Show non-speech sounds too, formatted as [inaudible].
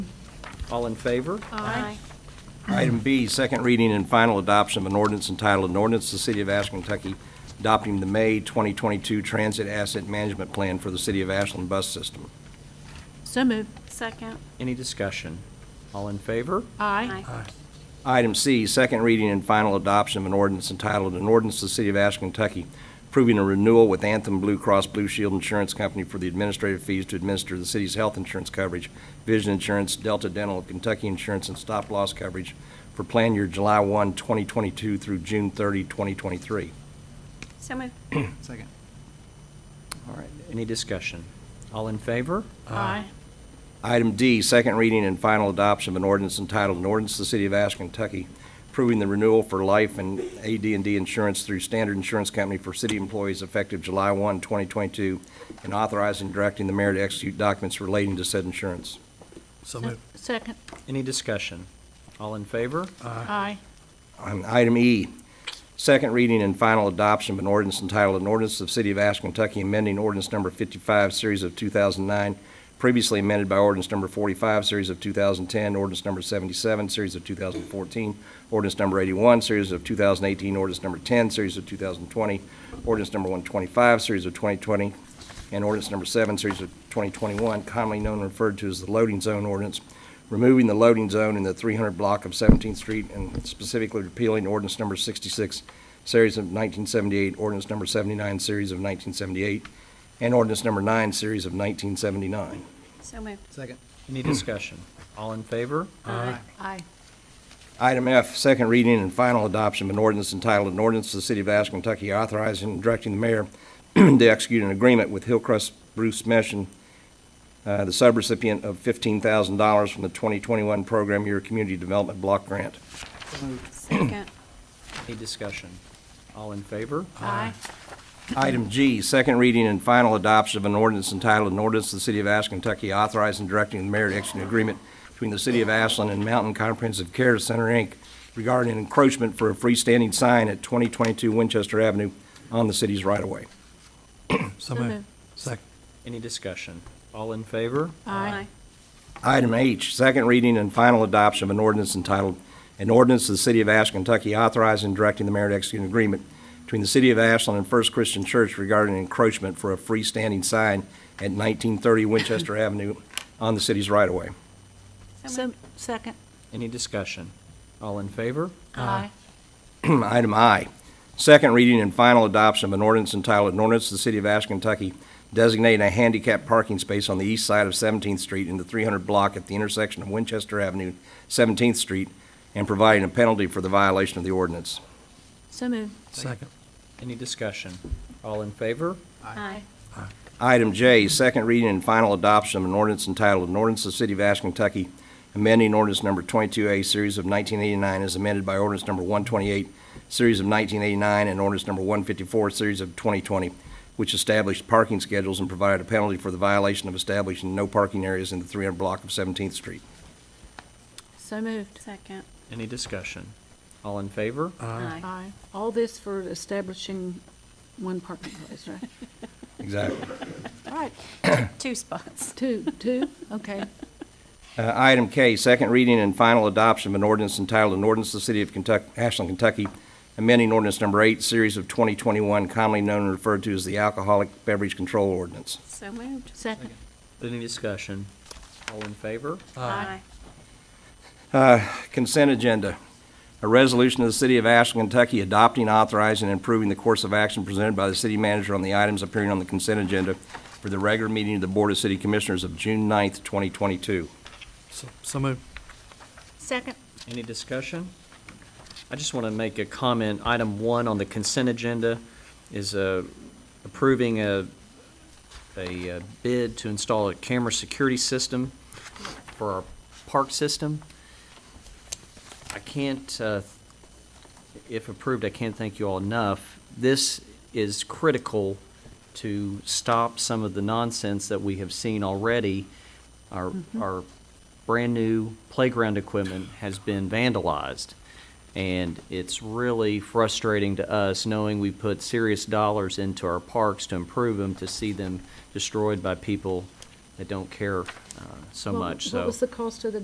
All in favor? Aye. Item B, second reading and final adoption of an ordinance entitled, an ordinance to the City of Ashland, Kentucky, adopting the May 2022 Transit Asset Management Plan for the City of Ashland Bus System. So moved. Second. Any discussion? All in favor? Aye. Item C, second reading and final adoption of an ordinance entitled, an ordinance to the City of Ashland, Kentucky, approving a renewal with Anthem Blue Cross Blue Shield Insurance Company for the administrative fees to administer the city's health insurance coverage, vision insurance, Delta Dental of Kentucky Insurance, and stop-loss coverage for plan year July 1, 2022 through June 30, 2023. So moved. Second. All right, any discussion? All in favor? Aye. Item D, second reading and final adoption of an ordinance entitled, an ordinance to the City of Ashland, Kentucky, approving the renewal for life and ad and d insurance through Standard Insurance Company for city employees effective July 1, 2022, and authorizing and directing the mayor to execute documents relating to said insurance. So moved. Second. Any discussion? All in favor? Aye. On item E, second reading and final adoption of an ordinance entitled, an ordinance of the City of Ashland, Kentucky, amending ordinance number 55, series of 2009, previously amended by ordinance number 45, series of 2010, ordinance number 77, series of 2014, ordinance number 81, series of 2018, ordinance number 10, series of 2020, ordinance number 125, series of 2020, and ordinance number 7, series of 2021, commonly known and referred to as the loading zone ordinance, removing the loading zone in the 300 block of 17th Street and specifically repealing ordinance number 66, series of 1978, ordinance number 79, series of 1978, and ordinance number 9, series of 1979. So moved. Second. Any discussion? All in favor? Aye. Aye. Item F, second reading and final adoption of an ordinance entitled, an ordinance to the City of Ashland, Kentucky authorizing and directing the mayor [clears throat] to execute an agreement with Hillcrest Bruce Meshin, uh, the subrecipient of $15,000 from the 2021 Program Year Community Development Block Grant. Second. Any discussion? All in favor? Aye. Item G, second reading and final adoption of an ordinance entitled, an ordinance to the City of Ashland, Kentucky authorizing and directing the mayor to execute an agreement between the City of Ashland and Mountain Comprehensive Care Center, Inc. regarding encroachment for a freestanding sign at 2022 Winchester Avenue on the city's right-of-way. So moved. Second. Any discussion? All in favor? Aye. Item H, second reading and final adoption of an ordinance entitled, an ordinance to the City of Ashland, Kentucky authorizing and directing the mayor to execute an agreement between the City of Ashland and First Christian Church regarding encroachment for a freestanding sign at 1930 Winchester Avenue on the city's right-of-way. So moved. Second. Any discussion? All in favor? Aye. [clears throat] Item I, second reading and final adoption of an ordinance entitled, an ordinance to the City of Ashland, Kentucky designating a handicap parking space on the east side of 17th Street in the 300 block at the intersection of Winchester Avenue, 17th Street, and providing a penalty for the violation of the ordinance. So moved. Second. Any discussion? All in favor? Aye. Item J, second reading and final adoption of an ordinance entitled, an ordinance of the City of Ashland, Kentucky, amending ordinance number 22A, series of 1989, as amended by ordinance number 128, series of 1989, and ordinance number 154, series of 2020, which established parking schedules and provided a penalty for the violation of establishing no parking areas in the 300 block of 17th Street. So moved. Second. Any discussion? All in favor? Aye. All this for establishing one parking place, right? Exactly. All right, Two spots. two, two, okay. Uh, Item K, second reading and final adoption of an ordinance entitled, an ordinance to the City of Kentuck- Ashland, Kentucky, amending ordinance number eight, series of 2021, commonly known and referred to as the Alcoholic Beverage Control Ordinance. So moved. Second. Any discussion? All in favor? Aye. Consent agenda. A resolution of the City of Ashland, Kentucky adopting, authorizing, and approving the course of action presented by the city manager on the items appearing on the consent agenda for the regular meeting of the Board of City Commissioners of June 9th, 2022. So so moved. Second. Any discussion? I just want to make a comment. Item one on the consent agenda is uh, approving a, a uh, bid to install a camera security system for our park system. I can't, uh, if approved, I can't thank you all enough. This is critical to stop some of the nonsense that we have seen already. Our, Mm-hmm. our brand-new playground equipment has been vandalized. And it's really frustrating to us, knowing we put serious dollars into our parks to improve them, to see them destroyed by people that don't care uh, so What- much, so. What was the cost of the